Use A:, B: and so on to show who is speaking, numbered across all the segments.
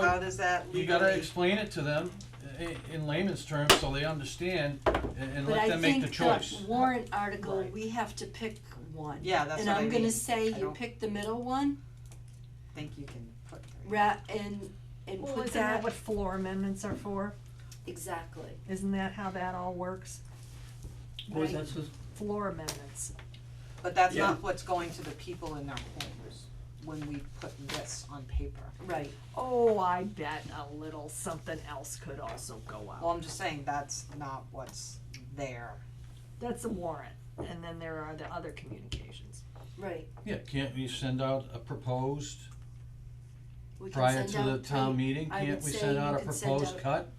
A: How does that
B: You gotta
A: legally?
B: explain it to them i- in layman's terms so they understand a- and
C: But
B: let
C: I
B: them make
C: think
B: the
C: the
B: choice.
C: warrant article,
A: Right.
C: we have to pick one.
A: Yeah, that's what I
C: And I'm gonna
A: mean.
C: say
A: I
C: you
A: don't-
C: pick the middle one,
A: Think you can put three.
C: ra- and, and
D: Well,
C: put
D: isn't that
C: that,
D: what floor amendments are for?
C: exactly.
D: Isn't that how that all works?
E: What is
C: Right.
E: that, Susan?
D: Floor amendments.
A: But that's
E: Yeah.
A: not what's going to the people in their homes when we put this on paper.
C: Right,
D: Oh, I bet a little something else could also go
A: Well,
D: out.
A: I'm just saying that's not what's there.
D: That's a warrant, and then there are the other communications.
C: right.
B: Yeah, can't we send out a proposed
C: We can
B: prior
C: send
B: to the
C: out
B: town
C: three-
B: meeting?
C: I
B: Can't
C: would
B: we
C: say
B: send
C: you
B: out a
C: can send
B: proposed
C: out
B: cut?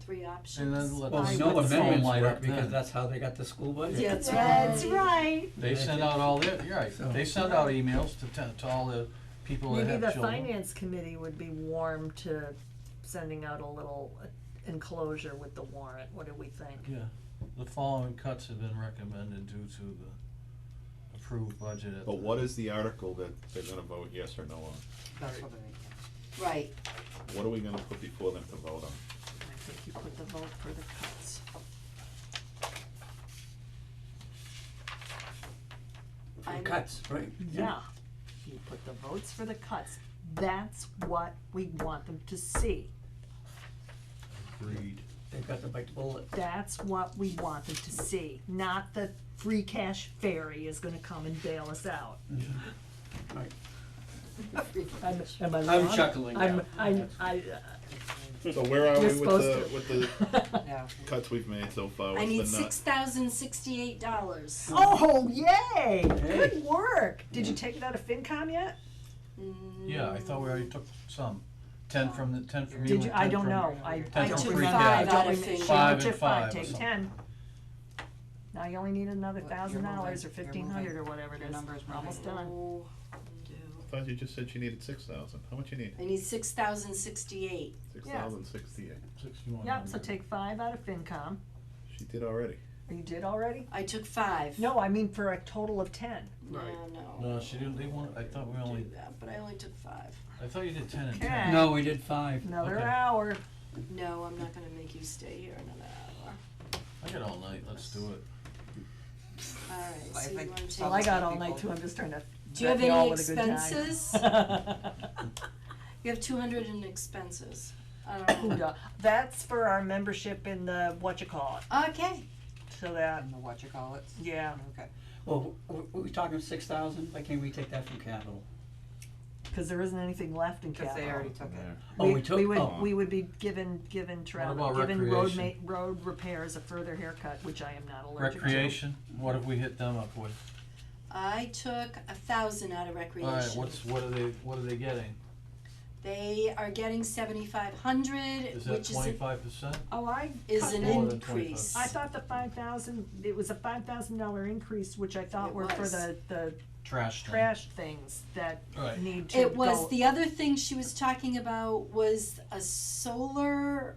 C: Three options.
B: And then let
D: Well,
B: the
D: we
E: Well,
D: I
E: no
D: would say-
E: amendments
B: light
E: work
B: up
E: because
B: then.
E: that's how they got the school budget.
C: That's
D: That's
C: right.
D: right.
B: They send out all their, you're right, they send out emails to t- to all the people that
D: Maybe the
B: have children.
D: finance committee would be warm to sending out a little enclosure with the warrant, what do we think?
B: Yeah, the following cuts have been recommended due to the approved budget at
F: But
B: the-
F: what is the article that they're gonna vote yes or no on?
A: That's what I mean.
C: Right,
F: What are we gonna put before them to vote on?
D: I think you put the vote for the cuts.
C: I'm-
E: Cuts, right?
D: Yeah, you put the votes for the cuts, that's what we want them to see,
B: Agreed.
E: They've got to bite the bullet.
D: that's what we want them to see, not that free cash fairy is gonna come and bail us out.
E: Right.
D: I'm, am I
B: I'm
D: wrong?
B: chuckling
D: I'm,
B: now.
D: I'm, I,
F: So where are
D: You're
F: we with the,
D: supposed
F: with the
D: uh,
A: Yeah.
F: cuts we've made so far?
C: I
F: What's
C: need
F: the nut?
C: six thousand sixty-eight dollars.
D: oh, yay,
E: Hey.
D: good work, did you take it out of FinCom yet?
B: Yeah,
C: Mm,
B: I thought we already took some, ten from the, ten from you
D: Did
B: and
D: you,
B: ten
D: I don't
B: from-
D: know, I,
B: Ten
D: I
B: from
D: took
B: free cash.
D: five out
C: Five
D: of fifteen,
B: and
D: took
B: five
D: five,
B: or
D: take
B: something.
D: ten. Now you only need another
A: Look, you're
D: thousand dollars or
A: moving, you're
D: fifteen hundred
A: moving.
D: or whatever it
A: Your
D: is,
A: number's
D: we're almost
A: moving.
D: done.
C: Oh,
F: I thought you just said you needed six thousand. How much you need?
C: I need six thousand sixty-eight.
F: Six
D: Yeah.
F: thousand sixty-eight.
B: Sixty-one
D: Yep, so
B: hundred.
D: take five out of FinCom,
F: She did already.
D: or you did already?
C: I took five.
D: No, I mean for a total of ten.
C: No,
E: Right.
C: no.
B: No, she didn't, they want, I thought we only,
C: Do that, But I only took five.
B: I thought you did ten and
D: Okay.
B: ten.
E: No, we did five.
D: Another
B: Okay.
D: hour.
C: No, I'm not gonna make you stay here another hour.
B: I got all night, let's do it.
C: Alright,
A: I
C: so you
A: think
C: wanna take.
D: Well, I got all
A: people-
D: night too, I'm just trying to.
C: Do you have
D: bet all
C: any
D: what a good time.
C: expenses? You have two hundred in expenses.
D: Ooh,
C: Um,
D: duh. That's for our membership in the, what you call it,
C: Okay,
D: so that,
A: And the what you call it.
D: yeah,
A: Okay.
E: Well, w- we, we talking six thousand, why can't we take that from capital?
D: cause there isn't anything left in
A: Because
D: capital.
A: they already took it.
E: Oh, we took,
D: We would,
E: oh.
D: we would be given, given travel,
B: about
D: given road ma-
B: recreation?
D: road repairs a further haircut, which I am not allergic to.
B: Recreation, what have we hit them up with?
C: I took a thousand out of
B: Alright,
C: recreation.
B: what's, what are they, what are they getting?
C: They are getting seventy-five hundred,
B: Is that
C: which is, a-
B: twenty-five percent?
D: Oh, I
C: is
D: cut
C: an
D: that.
B: More than 25.
C: increase.
D: I thought the five thousand, it was a five thousand dollar increase, which I thought
C: It
D: were for
C: was.
D: the, the
B: Trash thing.
D: trash things that
B: Right.
D: need to go.
C: It was, the other thing she was talking about was a solar,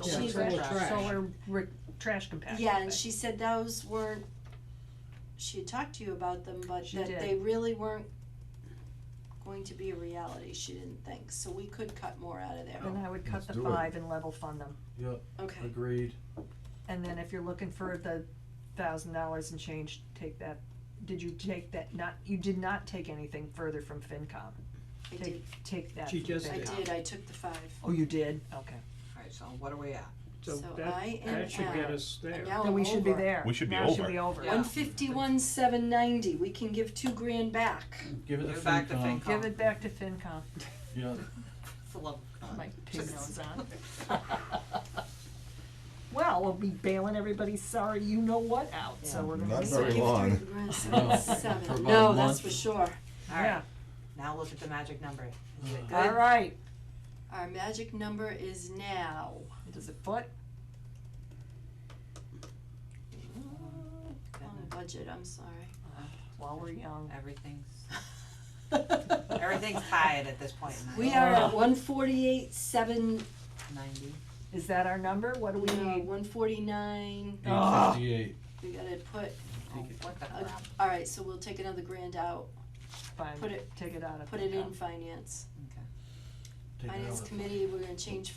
D: solar
C: she's
D: trash-
A: solar trash.
D: Solar re- trash compactor
C: yeah, and
D: thing.
C: she said those weren't, she had talked to you about them, but
D: She
C: that
D: did.
C: they really weren't going to be a reality, she didn't think, so we could cut more out of there,
D: Then I would
B: Let's
D: cut the
B: do it.
D: five and level fund them,
B: Yep,
C: okay.
B: agreed.
D: and then if you're looking for the thousand dollars and change, take that, did you take that, not, you did not take anything further from FinCom?
C: I
D: Take,
C: did,
D: take that.
E: She
D: from
E: just
C: I
D: FinCom.
C: did, I took the five,
D: Oh, you did, okay.
A: Alright, so what are we at?
C: so I am
G: That should get
C: at-
G: us there.
C: and now I'm Oh, over.
D: Then we should be there.
F: We should be
D: Now it should
F: over.
D: be over.
A: Yeah.
C: One fifty-one, seven ninety, we can give two grand back.
B: Give it to
A: Give it back to
B: FinCom,
A: FinCom.
D: Give it back to FinCom,
B: yeah,
A: Full of.
D: my pig nose on. Well, we'll be bailing everybody's sorry, you know what out, so we're gonna.
F: Not
D: be-
F: very
C: Give
F: long.
C: three grand,
B: No,
C: seven,
B: for about a
C: seven, no, that's
B: month.
C: for sure.
D: Yeah,
A: Now look at the magic number. Is it good?
D: alright,
C: Our magic number is now.
D: is it foot?
C: On the budget, I'm sorry.
D: While we're young.
A: Everything's, everything's tied at this point in
C: We
D: Oh.
A: life.
C: are at one forty-eight, seven,
A: Ninety.
D: Is that our number? What do we
C: no,
D: need?
C: one forty-nine,
B: eight fifty-eight.
C: we gotta put,
A: Oh, what the
C: uh,
A: crap.
C: alright, so we'll take another grand out,
D: Fine,
C: put it-
D: take it out of.
C: put it in
D: FinCom.
C: finance.
A: Okay.
B: take it
C: Finance
B: out of-
C: committee, we're gonna change